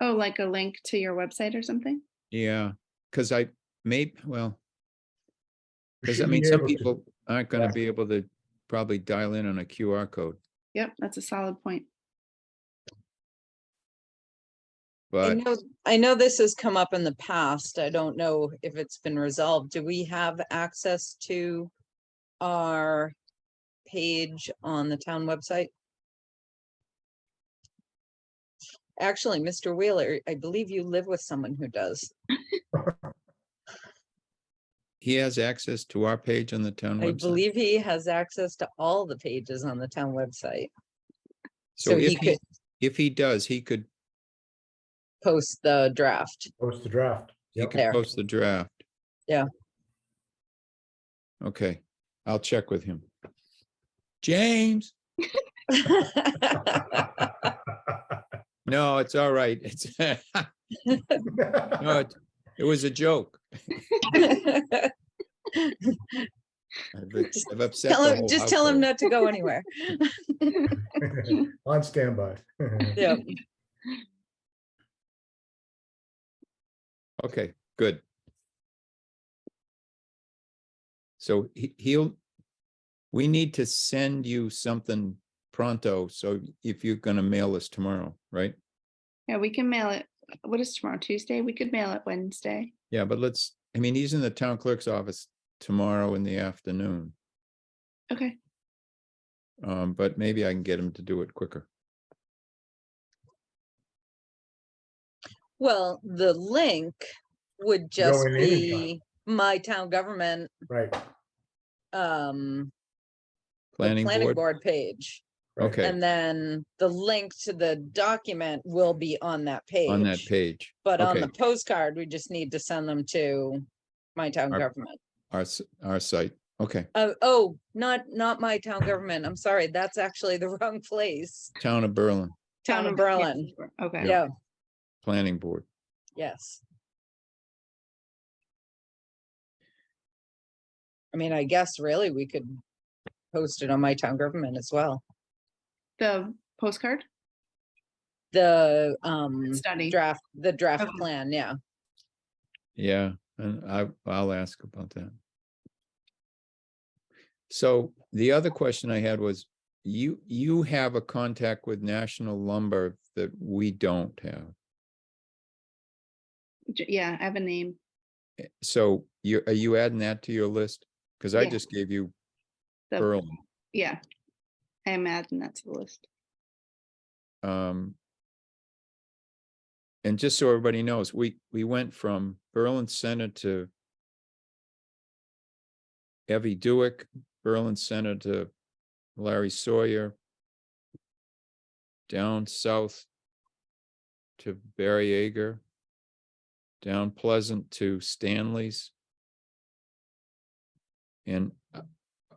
Oh, like a link to your website or something? Yeah, because I may, well, You because I should mean, be some able to- people aren't going Yeah. to be able to probably dial in on a QR code, Yep, that's a solid point. I but know, I know this has come up in the past. I don't know if it's been resolved. Do we have access to our page on the town website? Actually, Mr. Wheeler, I believe you live with someone who does. he has access to our page on the town I website. believe he has access to all the pages on the town website. So So he if he, could if he does, he could, post the draft. Post the draft. he Yep. could There. post the draft. Yeah. Okay, I'll check with him. James, no, it's all right. It's, no, it, it was a joke. I've Just I've upset Tell the him, whole just tell household. him not to go anywhere. On standby. Yeah. Okay, good. So he, he'll, we need to send you something pronto, so if you're gonna mail us tomorrow, right? Yeah, we can mail it. What is tomorrow? Tuesday? We could mail it Wednesday. Yeah, but let's, I mean, he's in the town clerk's office tomorrow in the afternoon, Okay, um, but maybe I can get him to do it quicker. Well, the link would just in anytime. be my town government, Right. um, the Planning planning board, board page. right. okay, And then the link to the document will be on that on that page. page, But on okay. the postcard, we just need to send them to my town Our- government. our, s- our site, okay, Oh, oh, not, not my town government. I'm sorry. That's actually the wrong place. town of Berlin, Town Oh, of Berlin. Okay. Yeah, planning board, yes. I mean, I guess really we could post it on my town government as well. The postcard The, um, study. draft, the draft Okay. plan, yeah. yeah, and I, I'll ask about that. So the other question I had was, you, you have a contact with National Lumber that we don't have. J- Yeah, I have a name. So you, are you adding that to your list? Cause I Yeah. just gave you The- Berlin. Yeah. I am adding that to the list. Um. And just so everybody knows, we, we went from Berlin Center to Evie Dewick, Berlin Center to Larry Sawyer, down south to Barry Yeager, down Pleasant to Stanley's, and uh,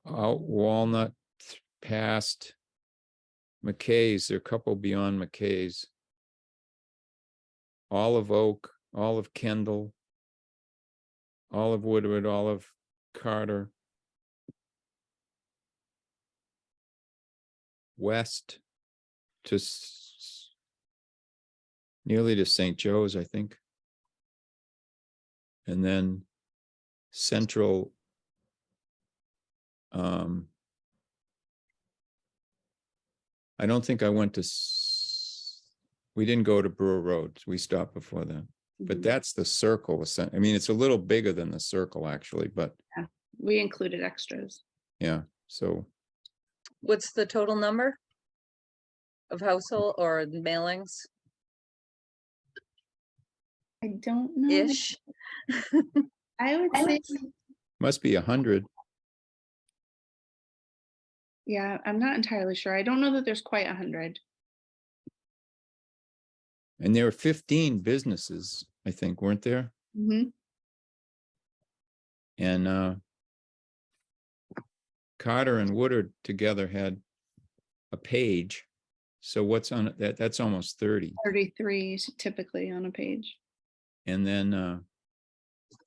out Walnut, th- past McKay's, there are a couple beyond McKay's. Olive Oak, Olive Kendall, Olive Woodward, Olive Carter. West to s- nearly to St. Joe's, I think. And then central um I don't think I went to s- we didn't go to Brewer Road. We stopped before that. But Mhm. that's the circle. essen- I mean, it's a little bigger than the circle actually, but We included extras. yeah, so What's the total number? Of household or mailings I don't know. ish? I would say, must be a hundred. yeah, I'm not entirely sure. I don't know that there's quite a hundred. And there were fifteen businesses, I think, weren't there? Mhm. And uh Carter and Woodard together had a page. So what's on it? that? That's almost thirty. Thirty-three is typically on a page. And then uh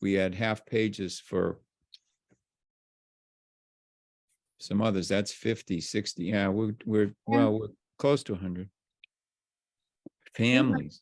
we had half pages for some others. That's 50, 60. Yeah, we're, we're, well, we're close to hundred. Families.